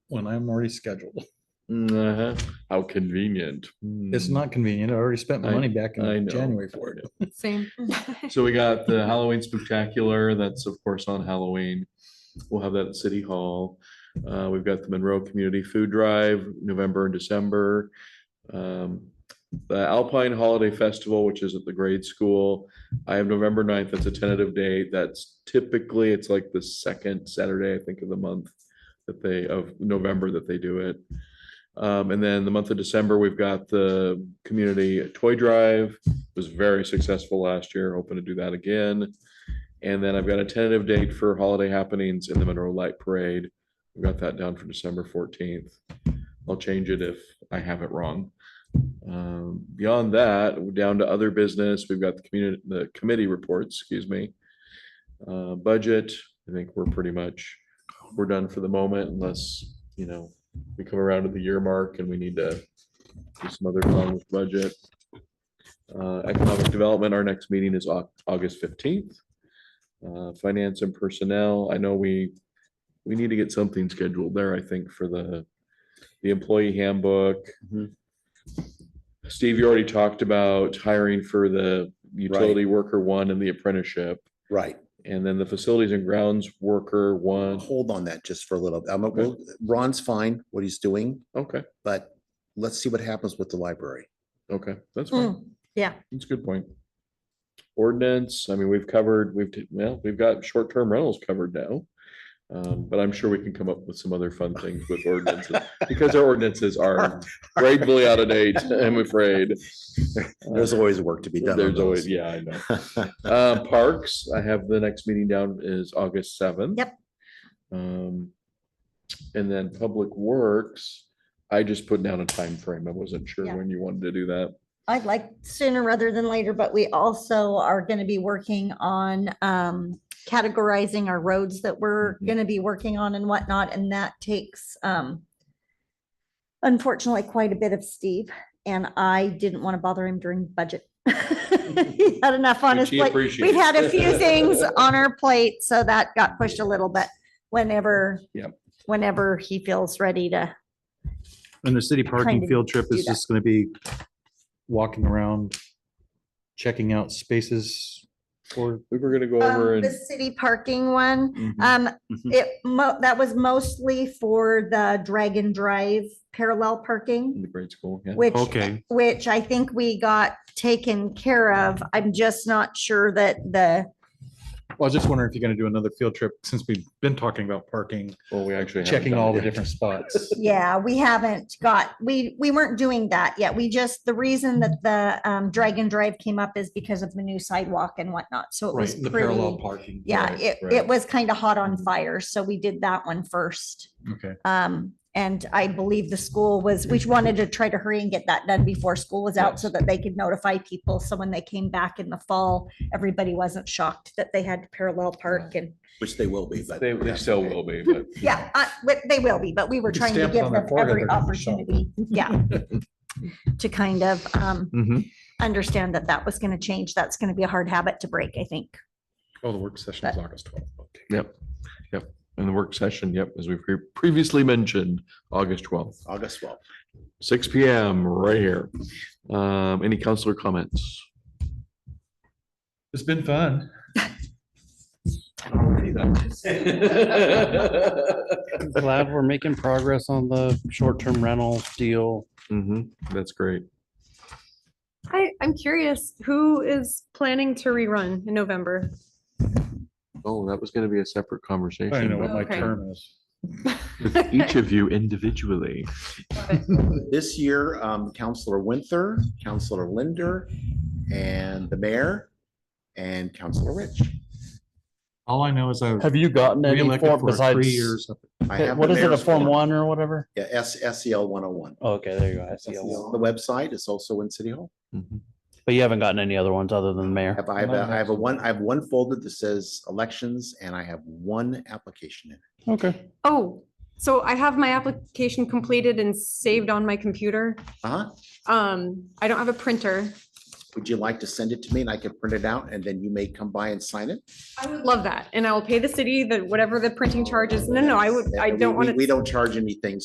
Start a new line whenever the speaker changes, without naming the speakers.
when I'm already scheduled.
Uh-huh. How convenient.
It's
Hmm.
not convenient. I already spent my
I-
money back
I
in
know.
January for it.
Same.
So we got the Halloween Spectacular, that's of course on Halloween. We'll have that at City Hall. Uh, we've got the Monroe Community Food Drive, November and December. Um, The Alpine Holiday Festival, which is at the grade school, I have November 9th. that's a tentative date, that's typically, it's like the second Saturday, I think, of the month that they, of November that they do it. Um, and then the month of December, we've got the Community Toy Drive, was very successful last year, hoping to do that again. And then I've got a tentative date for holiday happenings in the Monroe Light Parade. We've got that down for December fourteenth. I'll change it if I have it wrong. Um, beyond that, we're down to other business. We've got the community, the committee reports, excuse me. Uh, budget, I think we're pretty much, we're done for the moment unless, you know, we come around to the year mark and we need to do some other fun with budget. Uh, Economic Development, our next meeting is Au- August fifteenth. Uh, Finance and Personnel, I know we, we need to get something scheduled there, I think, for the, the employee handbook. Steve, you already talked about hiring for the utility worker one and the apprenticeship,
Right.
and then the facilities and grounds worker one.
Um, Hold on that just for a little. I'm, well, Ron's fine, what he's doing,
Okay,
but let's see what happens with the library.
okay, that's
Hmm.
fine.
Mm, Yeah.
That's a good point. Ordinance, I mean, we've covered, we've, t- well, we've got short-term rentals covered now. Um, but I'm sure we can come up with some other fun things with ordinances, because our ordinances are gratefully out of date, I'm afraid.
There's always work to be done. on
There's always,
those.
yeah, I know. Uh, parks, I have the next meeting down is August seventh.
Yep.
Um, and then Public Works, I just put down a time frame. I wasn't sure
Yeah.
when you wanted to do that.
I'd like sooner rather than later, but we also are gonna be working on um categorizing our roads that we're
Mhm.
gonna be working on and whatnot, and that takes um unfortunately quite a bit of Steve, and I didn't want to bother him during budget. He had enough on
Which
his
he
plate.
appreciates.
We've had a few things on our plate, so that got pushed a little bit whenever
Yep.
whenever he feels ready to,
And the city
Kind
parking
of
field trip
do
is
that.
just gonna be walking around, checking out spaces for
We were gonna go over
Um,
and.
the city parking one.
Mhm.
Um,
Mhm.
it mo- that was mostly for the Dragon Drive parallel
In
parking,
the grade school, yeah.
which,
Okay.
which I think we got taken care of. I'm just not sure that the,
Well, I was just wondering if you're gonna do another field trip, since we've been talking about parking,
Well, we actually. haven't
checking
done
all
it
the
yet.
different spots.
yeah, we haven't got, we, we weren't doing that yet. We just, the reason that the um, Dragon Drive came up is because of the new sidewalk and whatnot. So it was
Right, the parallel
pretty,
parking.
yeah,
Right,
it,
right.
it was kind of hot on fire. So we did that one first.
Okay.
Um, and I believe the school was, we wanted to try to hurry and get that done before school was out so that they could notify people. So when they came back in the fall, everybody wasn't shocked that they had to parallel park and,
Which they will be, but.
They, they still will be, but.
yeah, uh, but they will be, but we were
You can
trying to
stamp it
give
on their
them
forehead,
every
they're gonna be shocked.
opportunity, yeah. To kind of, um,
Mhm.
understand that that was going to change. That's going to be a hard habit to break, I think.
Oh, the work session is August twelfth. Okay.
Yep, yep. And the work session, yep, as we've pre- previously mentioned, August twelfth,
August twelfth.
six P M, right here. Um, any counselor comments?
It's been fun.
Mm-hmm,
Glad we're making progress on the short-term rental deal.
hmm that's great.
I, I'm curious, who is planning to rerun in November?
Oh, that was gonna be a separate
I don't know
conversation.
what my
Okay.
term is.
but Each of you individually.
This year, um, Counselor Winther, Counselor Linder, and the mayor, and Counselor Rich.
All I know is I was
Have you gotten any
reelected
form
for three
besides?
years. up
I have the
What is it, a
mayor's
Form
form.
One or whatever?
Yeah, S, SEL one oh one.
Okay, there you go. I
The
see. a E one.
website is also in City Hall.
Mhm.
But you haven't gotten any other ones other than the mayor?
Have I, have a- I have a one, I have one folder that says elections and I have one application in. it.
Okay.
Oh, so I have my application completed and saved on my computer.
Uh-huh.
Um, I don't have a printer.
Would you like to send it to me and I can print it out and then you may come by and sign it?
I would love that. And I will pay the city the, whatever the printing charges. No, no, I would, I
And we-
don't want
we-
to.
We don't charge anything,